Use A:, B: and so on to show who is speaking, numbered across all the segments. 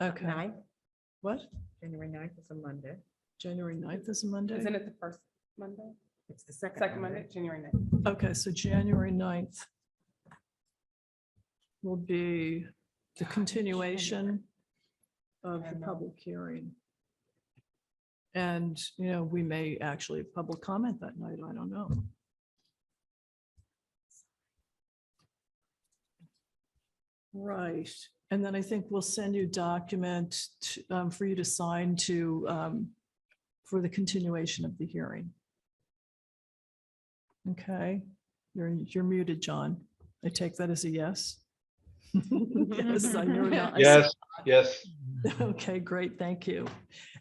A: Okay.
B: Ninth,
A: What?
B: January ninth is a Monday.
A: January 9th is a Monday?
C: Isn't it the first Monday?
B: It's the second.
C: Second Monday, January ninth.
A: Okay, so January 9th will be the continuation of
C: I
A: the
C: know.
A: public hearing. And, you know, we may actually have public comment that night, I don't know. Right, and then I think we'll send you document t- um, for you to sign to, um, for the continuation of the hearing. Okay, you're, you're muted, John. I take that as a yes. Yes, I knew it. I saw-
D: Yes, yes.
A: Okay, great, thank you.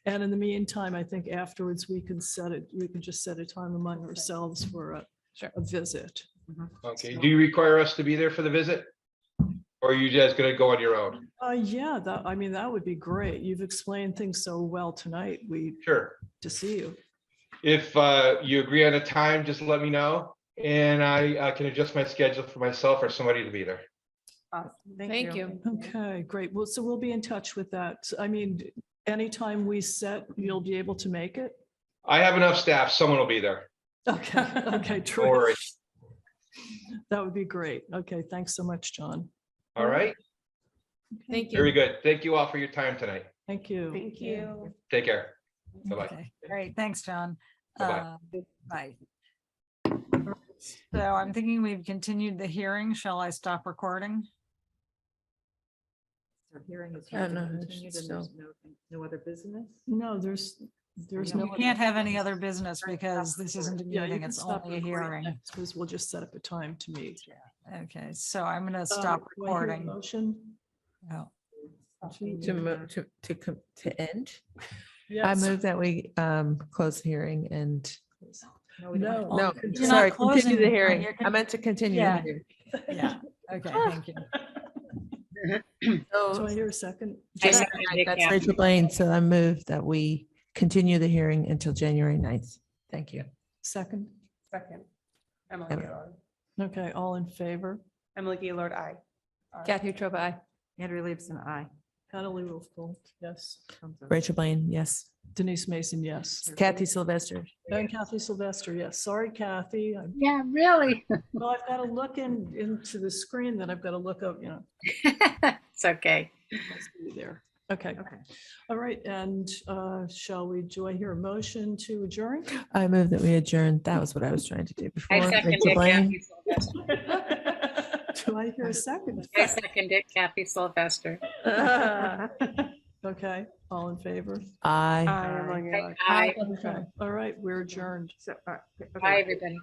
A: And in the meantime, I think afterwards we can set it, we can just set a time among ourselves for a,
C: Sure.
A: a visit.
D: Okay. Do you require us to be there for the visit? Or are you guys gonna go on your own?
A: Uh, yeah, that, I mean, that would be great. You've explained things so well tonight. We,
D: Sure.
A: to see you.
D: If uh, you agree on a time, just let me know and I I can adjust my schedule for myself or somebody to be there.
C: Awesome.
B: Thank
C: Thank
B: you.
C: you.
A: Okay, great. Well, so we'll be in touch with that. I mean, anytime we set, you'll be able to make it?
D: I have enough staff. Someone will be there.
A: Okay, okay,
D: Don't
A: true.
D: worry.
A: That would be great. Okay, thanks so much, John.
D: All right,
C: Thank
D: very
C: you.
D: good. Thank you all for your time tonight.
A: Thank you.
C: Thank you.
D: Take care. Bye-bye.
E: Okay, Great, thanks, John.
D: Bye-bye.
E: Uh, Bye. So I'm thinking we've continued the hearing. Shall I stop recording?
B: So hearing is.
A: I don't know,
B: continued
A: it's
B: and there's no- No other business?
A: No, there's, there's
B: No,
A: no.
E: We
A: other-
E: can't have any other business
B: Right, stop
E: because this isn't a
A: Yeah, you
E: meeting,
A: can
E: it's
A: stop
E: only a
A: recording
E: hearing.
A: now, Because we'll just set up a time to meet.
E: Okay, so I'm going to
A: Uh, do
E: stop
A: I hear a
E: recording.
A: Motion.
E: Oh,
F: To, mo- to, to, com- to end, I
A: Yes.
F: move that we um close the hearing and,
B: we don't have to-
A: No.
F: no,
A: You're
E: not
F: sorry, continue
E: closing,
F: the
E: no,
F: hearing.
E: you're
F: I meant to continue. the
E: Yeah.
F: hearing.
E: Yeah, okay, thank you.
A: Do
F: So,
A: I hear a second?
F: January ninth, That's Rachel Blaine, so I move that we continue the hearing until January 9th. Thank you.
A: Second?
C: Second. Emily
F: Emily.
C: Gaylord.
A: Okay, all in favor?
C: Emily Gaylord, I.
G: Kathy Trova, aye.
B: Andrew leaves an eye.
A: Natalie Wolfcole, yes.
F: Rachel Blaine, yes.
A: Denise Mason, yes.
F: Kathy Sylvester.
A: And Kathy Sylvester, yes. Sorry, Kathy. I-
H: Yeah, really.
A: Well, I've got to look in, into the screen, then I've got to look up, you know,
H: It's okay.
A: must be there. Okay,
B: Okay.
A: all right, and uh, shall we, do I hear a motion to adjourn?
F: I move that we adjourn. That was what I was trying to do before.
H: I second
F: Rachel
H: it,
F: Blaine.
H: Kathy Sylvester.
A: Do I hear a second?
H: I second it, Kathy Sylvester.
A: Okay, all in favor?
F: Aye.
C: I, Emily Gaylord.
H: Aye.
A: Okay, All right, we're adjourned.
B: So, uh, okay.
H: Bye, everybody.